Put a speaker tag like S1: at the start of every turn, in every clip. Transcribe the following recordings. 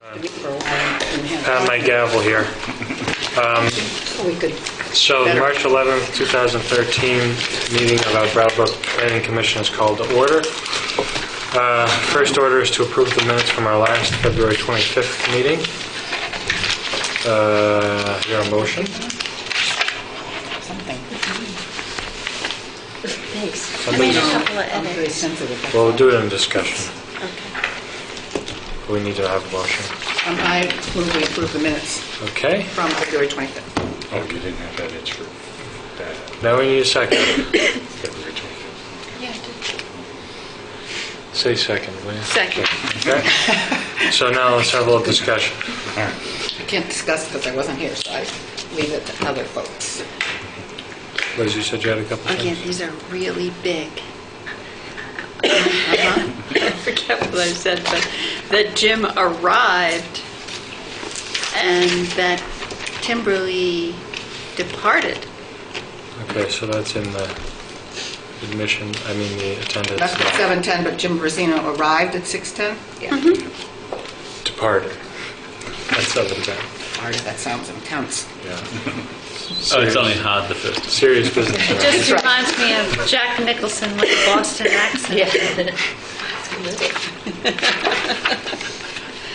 S1: for a while in hand.
S2: on my Uh, gavel here.
S1: We could,
S2: So the March 11th, 2013 meeting of our Brattleboro Planning Commission is called to order. Uh, First order is to approve the minutes from our last February 25th meeting. Uh, Is there a motion?
S1: something. Thanks.
S2: Somebody-
S3: Made a couple of
S1: I'm very
S3: edits.
S1: sensitive.
S2: Well, we'll do it in discussion.
S3: Okay.
S2: We need to have a motion.
S1: Um, I move we approve the minutes
S2: Okay?
S1: from February 25th.
S4: Oh, you didn't have edits for that,
S2: Now we need a second.
S4: February 25th.
S2: Say second, will you?
S3: Second.
S2: Okay? So now let's have a little discussion.
S4: All right,
S1: I can't discuss because I wasn't here, so I leave it to other folks.
S2: Liz, you said you had a couple
S3: Again,
S2: things?
S3: these are really big. I forget what I said, but that Jim arrived and that Timberly departed.
S2: Okay, so that's in the admission, I mean, the attendance.
S1: That's at 7:10, but Jim Brazino arrived at 6:10? Yeah.
S2: Departed. That's seven ten.
S1: Sorry, that sounds intense.
S5: Oh, it's only hard the first.
S2: Serious business.
S3: It
S2: right?
S3: just reminds me of Jack Nicholson with a Boston accent.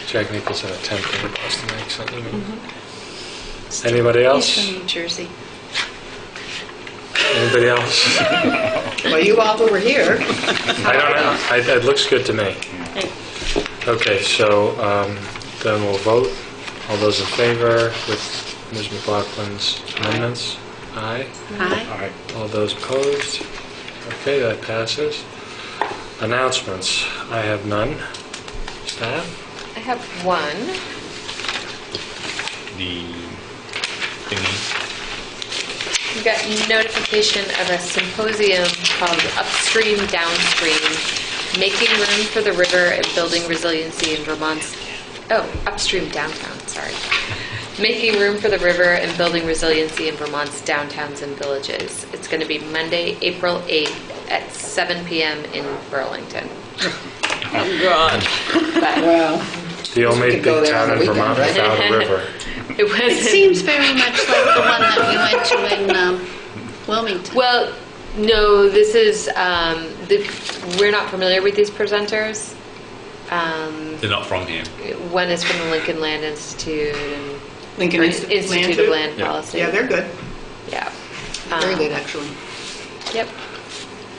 S2: Jack Nicholson attempting a Boston accent. you mean? Anybody
S3: He's
S2: else?
S3: from New Jersey.
S2: Anybody else?
S1: Well, you all who were here,
S2: I don't know. I- It looks good to me.
S3: Hey,
S2: Okay, so um, then we'll vote. All those in favor with Ms. McLaughlin's amendments? Aye.
S3: Hi.
S4: all right.
S2: All those opposed? Okay, that passes. Announcements, I have none. Staff?
S6: I have one.
S5: The thingy.
S6: We got notification of a symposium called Upstream Downstream, Making Room for the River and Building Resiliency in Vermont's, oh, Upstream Downtown, sorry. Making Room for the River and Building Resiliency in Vermont's Downtowns and Villages. It's going to be Monday, April 8th at 7 PM in Burlington.
S1: well,
S2: The
S1: we
S2: only
S1: could go
S2: big
S1: there on
S2: town
S1: the
S2: in
S1: weekend,
S2: Vermont
S1: right?
S2: without a river.
S6: It was
S3: It seems very much like the one that we went to in um, Wilmington.
S6: Well, no, this is, um, the, we're not familiar with these presenters. Um,
S5: They're not from here.
S6: one is from the Lincoln Land Institute and
S1: Lincoln
S6: or
S1: Institute of Land
S6: Institute
S1: Too?
S6: of Land
S5: Yeah.
S6: Policy.
S1: yeah, they're good.
S6: Yeah.
S1: Very
S6: Um,
S1: good, actually.
S6: Yep.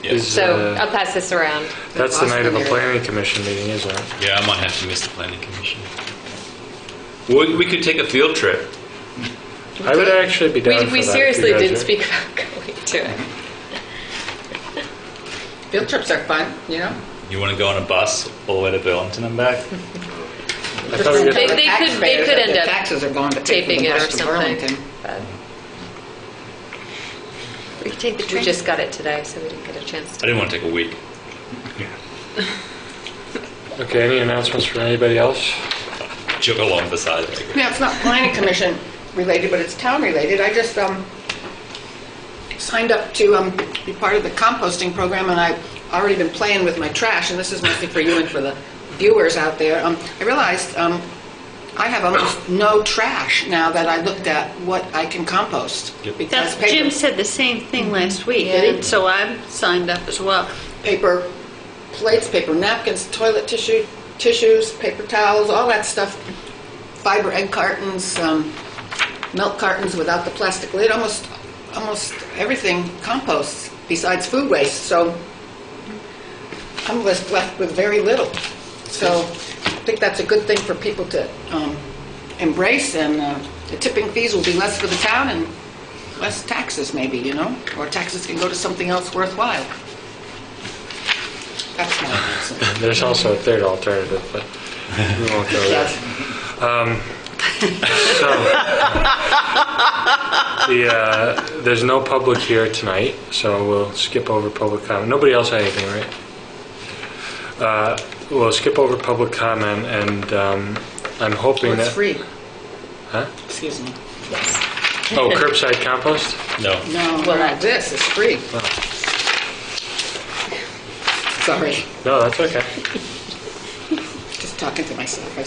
S2: Is,
S6: So
S2: uh,
S6: I'll pass this around.
S2: That's the night of a
S1: Boston area.
S2: planning commission meeting, isn't it?
S5: Yeah, I might have to miss the planning commission. We, we could take a field trip.
S2: I would actually be down for
S6: We,
S2: that.
S6: we
S2: if you
S6: seriously
S2: guys
S6: did
S2: are-
S6: speak about going to it.
S1: Field trips are fun, you know?
S5: You want to go on a bus all the way to Burlington and back?
S2: I thought we were
S6: They-
S2: gonna-
S6: they could- they
S1: Taxpayers,
S6: could
S1: their
S6: end up
S1: Taxes are going to pay for
S6: Taping
S1: the
S6: it or
S1: rest of Burlington.
S6: something. but
S3: We could take the
S6: We
S3: train.
S6: just got it today, so we didn't get a chance
S5: I
S6: to.
S5: didn't want to take a week.
S2: Okay, any announcements from anybody else?
S5: Jog along beside it.
S1: Yeah, it's not planning commission related, but it's town related. I just um, signed up to um, be part of the composting program, and I've already been playing with my trash, and this is mostly for you and for the viewers out there. Um, I realized um, I have almost no trash now that I looked at what I can compost. because
S3: That's,
S1: paper-
S3: Jim said the same thing last week,
S1: Did he?
S3: and so I'm signed up as well.
S1: paper plates, paper napkins, toilet tissue, tissues, paper towels, all that stuff, fiber egg cartons, um, milk cartons without the plastic lid, almost, almost everything composts besides food waste. So I'm left left with very little. So I think that's a good thing for people to um, embrace, and uh, the tipping fees will be less for the town and less taxes maybe, you know? Or taxes can go to something else worthwhile. That's my reason.
S2: There's also a third alternative, but we won't go there.
S1: Yes.
S2: So, the, uh, there's no public here tonight, so we'll skip over public comment. Nobody else had anything, right? Uh, We'll skip over public comment, and um, I'm hoping
S1: It's
S2: that...
S1: free.
S2: Huh?
S1: Excuse me.
S2: Oh, curbside compost?
S5: No.
S1: No, well, this is free. Sorry,
S2: No, that's okay.
S1: just talking to myself. I